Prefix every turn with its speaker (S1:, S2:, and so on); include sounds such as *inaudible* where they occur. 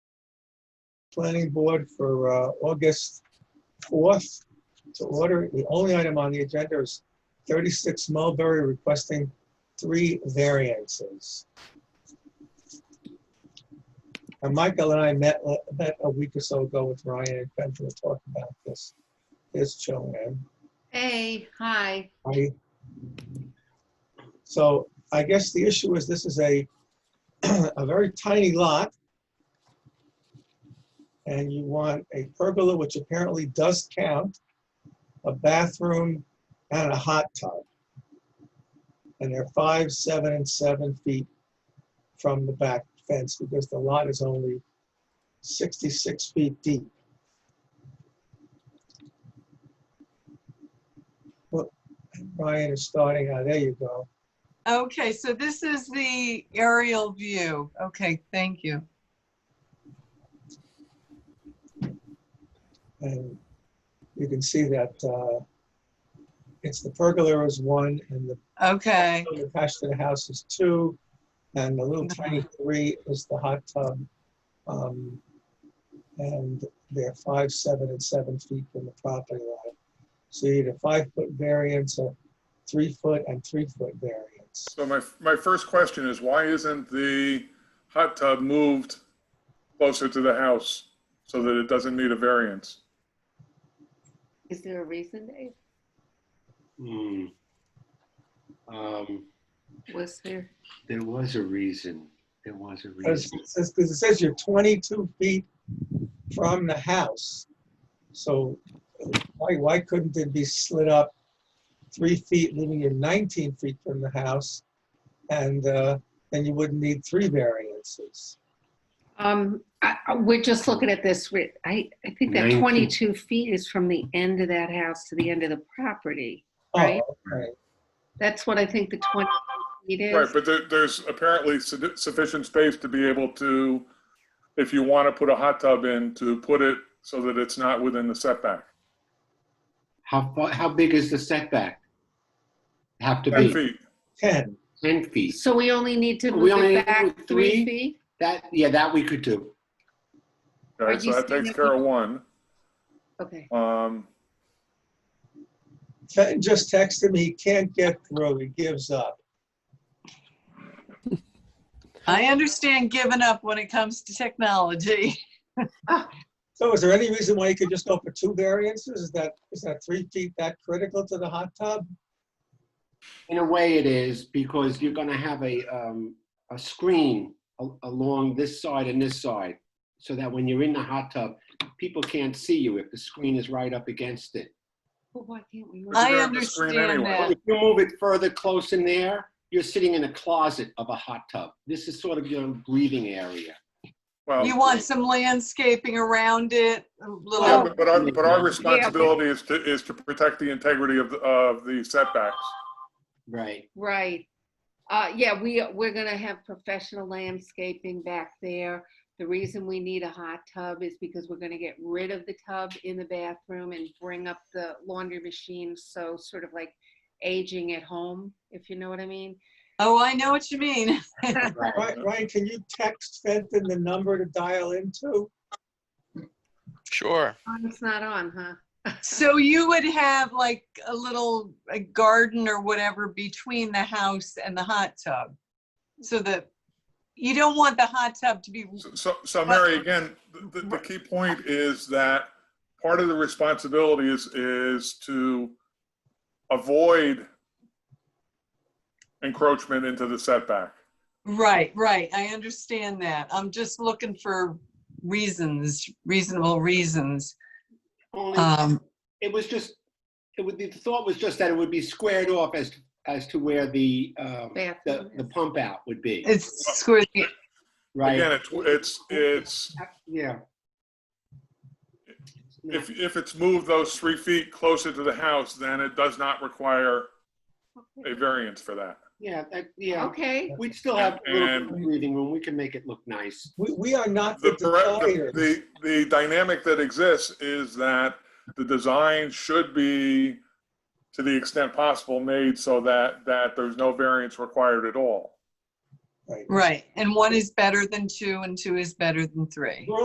S1: planning board for uh, August 4th to order. The only item on the agenda is 36 Mulberry requesting three variances. And Michael and I met, met a week or so ago with Ryan and Benjamin to talk about this. Here's Joanne.
S2: Hey, hi.
S1: I- So I guess the issue is this is a, *clears throat* a very tiny lot. And you want a pergola, which apparently does count, a bathroom and a hot tub. And they're five, seven, and seven feet from the back fence because the lot is only 66 feet deep. Brian is starting, ah, there you go.
S3: Okay, so this is the aerial view. Okay, thank you.
S1: And you can see that uh, it's the pergola is one and the
S3: Okay,
S1: building attached to the house is two. And the little tiny three is the hot tub. um, And they're five, seven, and seven feet from the property line. So you need a five-foot variance, a three-foot and three-foot variance.
S4: So my, my first question is, why isn't the hot tub moved closer to the house so that it doesn't need a variance?
S2: Is there a reason, Dave?
S5: Hmm. Um,
S2: Was there?
S5: there was a reason. There was a
S1: Because
S5: reason.
S1: it says, 'cause it says you're 22 feet from the house. So why, why couldn't it be slid up three feet, leaving you 19 feet from the house? And uh, then you wouldn't need three variances.
S2: Um, I, I- we're just looking at this, we- I, I think that
S5: Nineteen.
S2: 22 feet is from the end of that house to the end of the property.
S1: Oh,
S2: Right.
S1: okay.
S2: That's what I think the 20 feet
S4: Right,
S2: is.
S4: but there, there's apparently su- sufficient space to be able to, if you want to put a hot tub in, to put it so that it's not within the setback.
S5: How far, how big is the setback? Have to
S4: 10
S5: be
S4: feet.
S1: 10.
S5: ten feet.
S2: So we only need to
S5: We
S2: move
S5: only
S2: it
S5: need
S2: back three
S5: three?
S2: feet?
S5: That, yeah, that we could do.
S4: Okay,
S2: Are
S4: so
S2: you
S4: that
S2: saying
S4: takes
S2: that
S4: care of one.
S2: Okay.
S4: Um,
S1: Fenton just texted me, he can't get through, he gives up.
S3: I understand giving up when it comes to technology.
S1: So is there any reason why you could just go for two variances? Is that, is that three feet that critical to the hot tub?
S5: In a way it is because you're gonna have a, um, a screen a- along this side and this side. So that when you're in the hot tub, people can't see you if the screen is right up against it.
S2: Well, why can't we? move
S3: I
S4: you're
S2: it?
S4: on the screen
S3: understand
S4: anyway.
S3: that.
S5: If you move it further close in there, you're sitting in a closet of a hot tub. This is sort of your breathing area.
S4: well,
S3: You want some landscaping around it, a
S4: yeah,
S3: little,
S4: but but our, but our responsibility is to, is to protect the integrity of, the- of the setbacks.
S5: Right.
S2: Right. Uh, yeah, we, we're gonna have professional landscaping back there. The reason we need a hot tub is because we're gonna get rid of the tub in the bathroom and bring up the laundry machine, so sort of like aging at home, if you know what I mean.
S3: oh, I know what you mean.
S5: right.
S1: Ryan, Ryan, can you text Fenton the number to dial into?
S6: Sure.
S2: It's not on, huh?
S3: So you would have like a little a garden or whatever between the house and the hot tub. So that, you don't want the hot tub to be,
S4: So, so Mary, again, the, the key point is that part of the responsibility is, is to avoid encroachment into the setback.
S3: right, right, I understand that. I'm just looking for reasons, reasonable reasons.
S5: *laughs* Only
S3: Um,
S5: it was just, it would, the thought was just that it would be squared off as, as to where the, um, the,
S2: Bathroom
S5: the
S2: is-
S5: pump out would be,
S3: It's squishy.
S4: Again,
S5: right?
S4: it's, it's, it's,
S5: Yeah.
S4: if, if it's moved those three feet closer to the house, then it does not require a variance for that.
S5: Yeah, that- yeah,
S2: Okay,
S5: we'd still have a little bit of
S4: And-
S5: breathing room, we can make it look nice.
S1: We, we are not
S4: The,
S1: the
S4: pre-
S1: designers.
S4: the, the the dynamic that exists is that the design should be, to the extent possible, made so that, that there's no variance required at all.
S1: Right.
S3: Right. And one is better than two, and two is better than three.